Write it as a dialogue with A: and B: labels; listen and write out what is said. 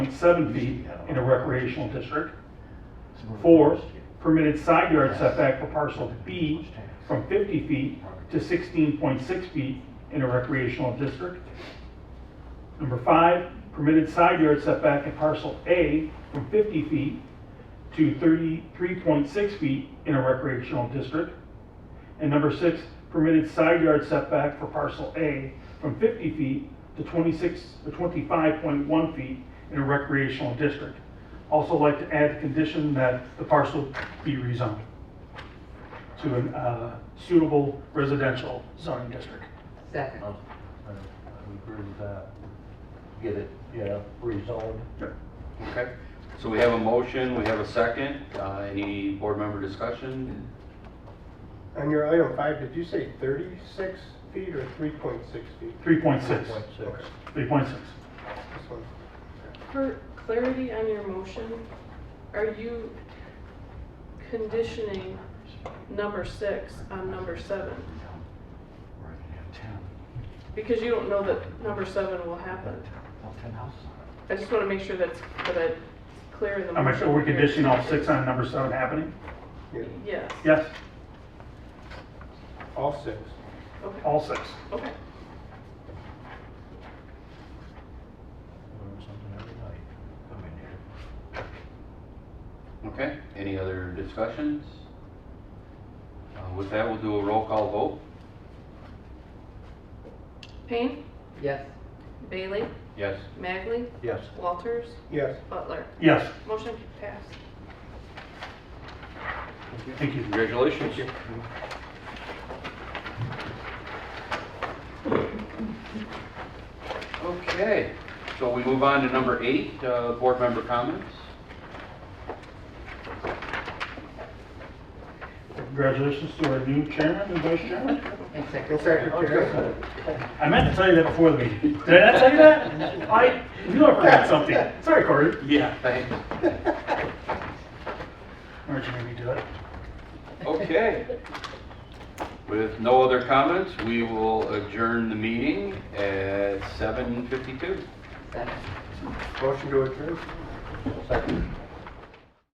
A: 1.7 feet in a recreational district. Four, permitted side yard setback for parcel B from 50 feet to 16.6 feet in a recreational district. Number five, permitted side yard setback in parcel A from 50 feet to 33.6 feet in a recreational district. And number six, permitted side yard setback for parcel A from 50 feet to 26, or 25.1 feet in a recreational district. Also like to add the condition that the parcel be rezoned to an uh, suitable residential zoning district.
B: Second.
C: I would agree with that. Get it, yeah, rezoned.
D: Okay, so we have a motion, we have a second. Uh, Any board member discussion?
E: On your item five, did you say thirty-six feet or three point six feet?
A: 3.6,
C: Point six.
A: 3.6.
E: This one.
F: For clarity on your motion, are you conditioning number six on number seven? Because you don't know that number seven will happen. I just want to make sure that's, that I clear in the
A: Am I
F: motion.
A: sure we're conditioning all six on number seven happening?
E: Yeah,
F: Yes,
A: Yes,
E: all six.
F: okay,
A: all six.
F: okay.
C: Learn something every night. Come in here.
D: Okay, any other discussions? Uh, With that, we'll do a roll call vote.
F: Payne,
B: Yes.
F: Bailey,
D: Yes,
F: Magley,
C: Yes,
F: Walters,
E: Yes,
F: Butler.
A: Yes,
F: Motion passed.
A: thank you.
D: congratulations. Okay, so we move on to number eight, uh, board member comments.
A: Congratulations to our new chairman and vice chairman.
B: And
E: and
B: second.
E: secretary.
A: I meant to tell you that before the meeting. Did I not tell you that? I, you know I forgot something. Sorry, Corey. Yeah.
D: Thanks.
A: Where'd you make me do it?
D: Okay. With no other comments, we will adjourn the meeting at 7:52.
B: Second.
E: Motion to adjourn.
C: second.